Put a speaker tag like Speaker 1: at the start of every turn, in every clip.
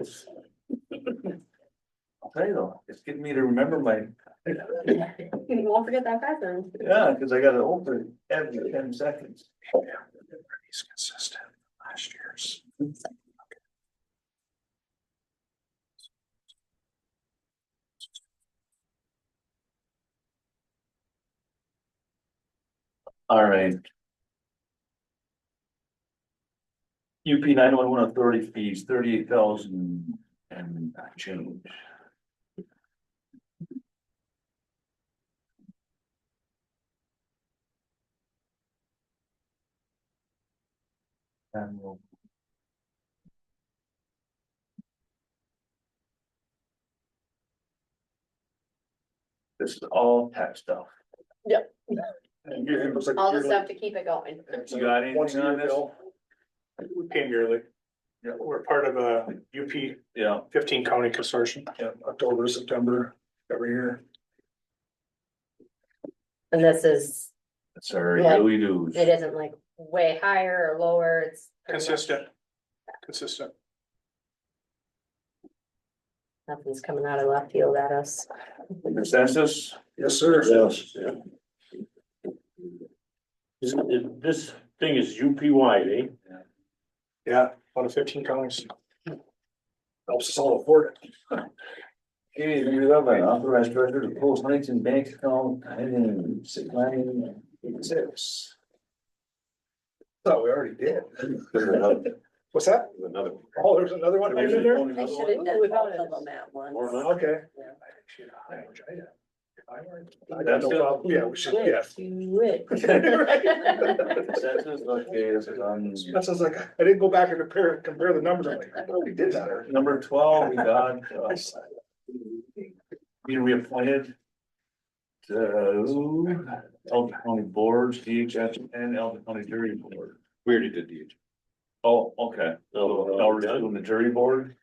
Speaker 1: is. I'll tell you though, it's getting me to remember my,
Speaker 2: You won't forget that bathroom.
Speaker 1: yeah, cause I gotta open it every ten seconds.
Speaker 3: He's consistent last year's.
Speaker 1: Alright. UP nine one one authority fees, thirty eight thousand and change. And we'll. This is all tax stuff.
Speaker 2: Yep.
Speaker 1: And it looks like
Speaker 2: All the
Speaker 1: you're-
Speaker 2: stuff to keep it going.
Speaker 1: You got anything on this?
Speaker 3: We came yearly.
Speaker 1: Yeah.
Speaker 3: We're part of a UP
Speaker 1: Yeah,
Speaker 3: fifteen county consortium.
Speaker 1: Yeah.
Speaker 3: October, September, every year.
Speaker 2: And this is,
Speaker 1: that's our
Speaker 2: Yeah.
Speaker 1: daily dues.
Speaker 2: it isn't like way higher or lower, it's. pretty much-
Speaker 3: Consistent. Consistent.
Speaker 2: Nothing's coming out of left field at us.
Speaker 1: Consensus?
Speaker 3: Yes, sir.
Speaker 4: Yes. Isn't it, this thing is UP wide, eh?
Speaker 3: Yeah, out of fifteen counties. Helps us all afford it.
Speaker 1: Any of you have an authorized director to post links in bank account, I didn't, six nine, six.
Speaker 3: Thought we already did.
Speaker 4: Another
Speaker 3: What's that?
Speaker 4: one.
Speaker 3: Oh, there's another one.
Speaker 1: There's
Speaker 3: Is it there?
Speaker 1: only
Speaker 2: I
Speaker 1: another
Speaker 2: should have
Speaker 1: one.
Speaker 2: done both of them at
Speaker 4: Or
Speaker 2: once.
Speaker 4: not.
Speaker 3: Okay.
Speaker 2: Yeah.
Speaker 3: I got no problem. Yeah, we should, yeah.
Speaker 1: Consensus, okay, this is on.
Speaker 3: That's just like, I didn't go back and compare, compare the numbers. I'm like, I thought we did that already.
Speaker 1: Number twelve, we got, uh, being reappointed. To Elgin County Boards, DHS and Elgin County Jury Board.
Speaker 4: We already did the. uh,
Speaker 1: Oh, okay, so now we're just doing the jury board.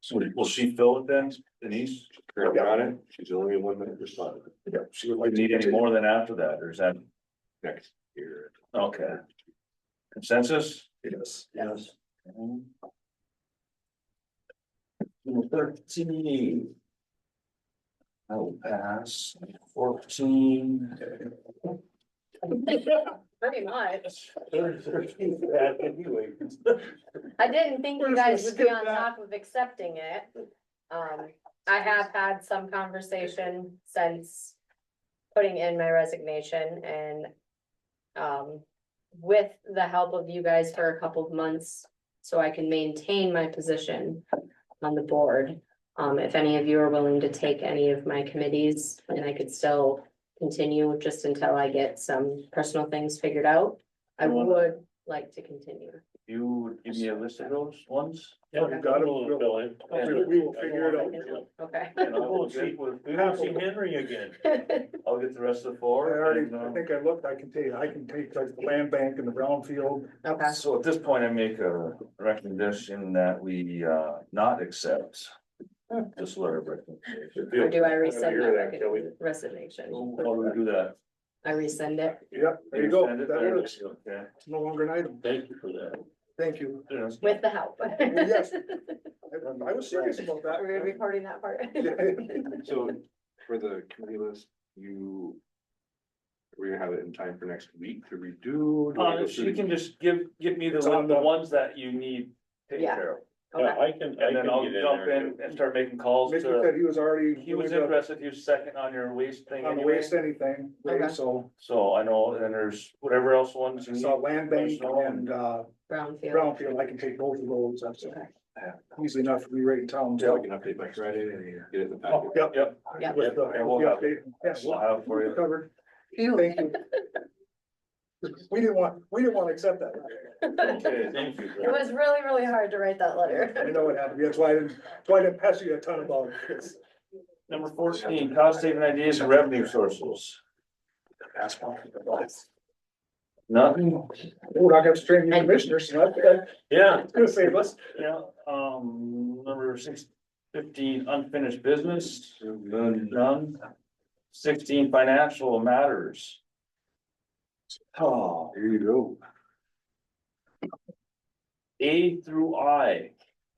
Speaker 1: So will she fill it then, Denise?
Speaker 4: Currently on it, she's only one that responded
Speaker 3: Yeah, she would
Speaker 1: We
Speaker 3: like to
Speaker 1: need any
Speaker 3: continue.
Speaker 1: more than after that, or is that,
Speaker 4: next year.
Speaker 1: okay, consensus?
Speaker 3: Yes.
Speaker 1: Yes. Number thirteen. I will pass, fourteen.
Speaker 2: Pretty much.
Speaker 1: Thirteen, bad anyway.
Speaker 2: I didn't think
Speaker 3: We're
Speaker 2: you
Speaker 3: just
Speaker 2: guys
Speaker 3: gonna
Speaker 2: would be
Speaker 3: skip
Speaker 2: on
Speaker 3: that.
Speaker 2: top of accepting it. Um, I have had some conversation since putting in my resignation and um, with the help of you guys for a couple of months, so I can maintain my position on the board. Um, if any of you are willing to take any of my committees, and I could still continue just until I get some personal things figured out, I
Speaker 1: You wanna-
Speaker 2: would like to continue.
Speaker 1: You would give me a list of those ones?
Speaker 4: Yeah,
Speaker 2: we've
Speaker 3: got it.
Speaker 4: it.
Speaker 3: We- We will figure it out.
Speaker 2: Okay.
Speaker 1: And I will get with-
Speaker 4: We haven't seen Henry again.
Speaker 1: I'll get the rest of the
Speaker 3: I
Speaker 1: four.
Speaker 3: already,
Speaker 1: and,
Speaker 3: I
Speaker 1: uh,
Speaker 3: think I looked, I can tell you, I can take like the land bank and the brownfield.
Speaker 2: Okay,
Speaker 1: So at this point, I make a recommendation that we uh not accept. This letter of recommendation.
Speaker 2: or do I resend
Speaker 4: hear that, Kelly.
Speaker 2: my resignation?
Speaker 1: How do we do that?
Speaker 2: I resend it.
Speaker 3: Yep, there you go.
Speaker 1: Send it
Speaker 3: That
Speaker 1: there?
Speaker 3: works.
Speaker 1: Okay.
Speaker 3: It's no longer an item.
Speaker 4: Thank you for that.
Speaker 3: Thank you.
Speaker 1: Yes.
Speaker 2: With the help.
Speaker 3: Yes. I I was serious about that.
Speaker 2: We're recording that part.
Speaker 5: So for the committee list, you. We're gonna have it in time for next week to redo. do we
Speaker 1: Uh,
Speaker 5: go
Speaker 1: she
Speaker 5: through
Speaker 1: can just give, give me the
Speaker 3: It's on
Speaker 1: one, the
Speaker 3: the-
Speaker 1: ones that you need taken
Speaker 2: Yeah.
Speaker 1: care of.
Speaker 2: Okay.
Speaker 4: Yeah, I can, I
Speaker 1: And
Speaker 4: can
Speaker 1: then I'll
Speaker 4: get in
Speaker 1: jump
Speaker 4: there.
Speaker 1: in and start making calls
Speaker 3: Mickey
Speaker 1: to,
Speaker 3: said he was already.
Speaker 1: he was
Speaker 3: doing the-
Speaker 1: interested, he was second on your waste thing
Speaker 3: On the
Speaker 1: anyway.
Speaker 3: waste anything, right?
Speaker 2: Okay.
Speaker 3: so
Speaker 1: So I know, and there's whatever else ones
Speaker 3: I
Speaker 1: you need.
Speaker 3: saw land bank and uh
Speaker 2: Brownfield.
Speaker 3: brownfield, I can take both of those, that's
Speaker 2: Okay.
Speaker 3: easy enough to be right in town.
Speaker 5: So I can update by Friday and get it in the packet.
Speaker 3: Oh, Yep.
Speaker 1: Yep.
Speaker 2: Yeah.
Speaker 3: With the-
Speaker 1: And we'll
Speaker 3: yeah,
Speaker 1: have-
Speaker 3: they- Yes,
Speaker 1: We'll have for you.
Speaker 3: covered, thank you. We didn't want, we didn't want to accept that.
Speaker 1: Okay, thank you.
Speaker 2: It was really, really hard to write that
Speaker 3: I
Speaker 2: letter.
Speaker 3: know it had to be, that's why I didn't, that's why I didn't pass you a ton about it. It's-
Speaker 1: Number fourteen, cost saving ideas and revenue sources.
Speaker 3: that's why. We're
Speaker 1: Nothing,
Speaker 3: not gonna string you commissioners, so that's,
Speaker 4: Yeah,
Speaker 3: that's gonna save us.
Speaker 1: yeah, um, number six, fifteen, unfinished business, none, none. Sixteen, financial matters. Oh,
Speaker 5: Here you go.
Speaker 1: A through I,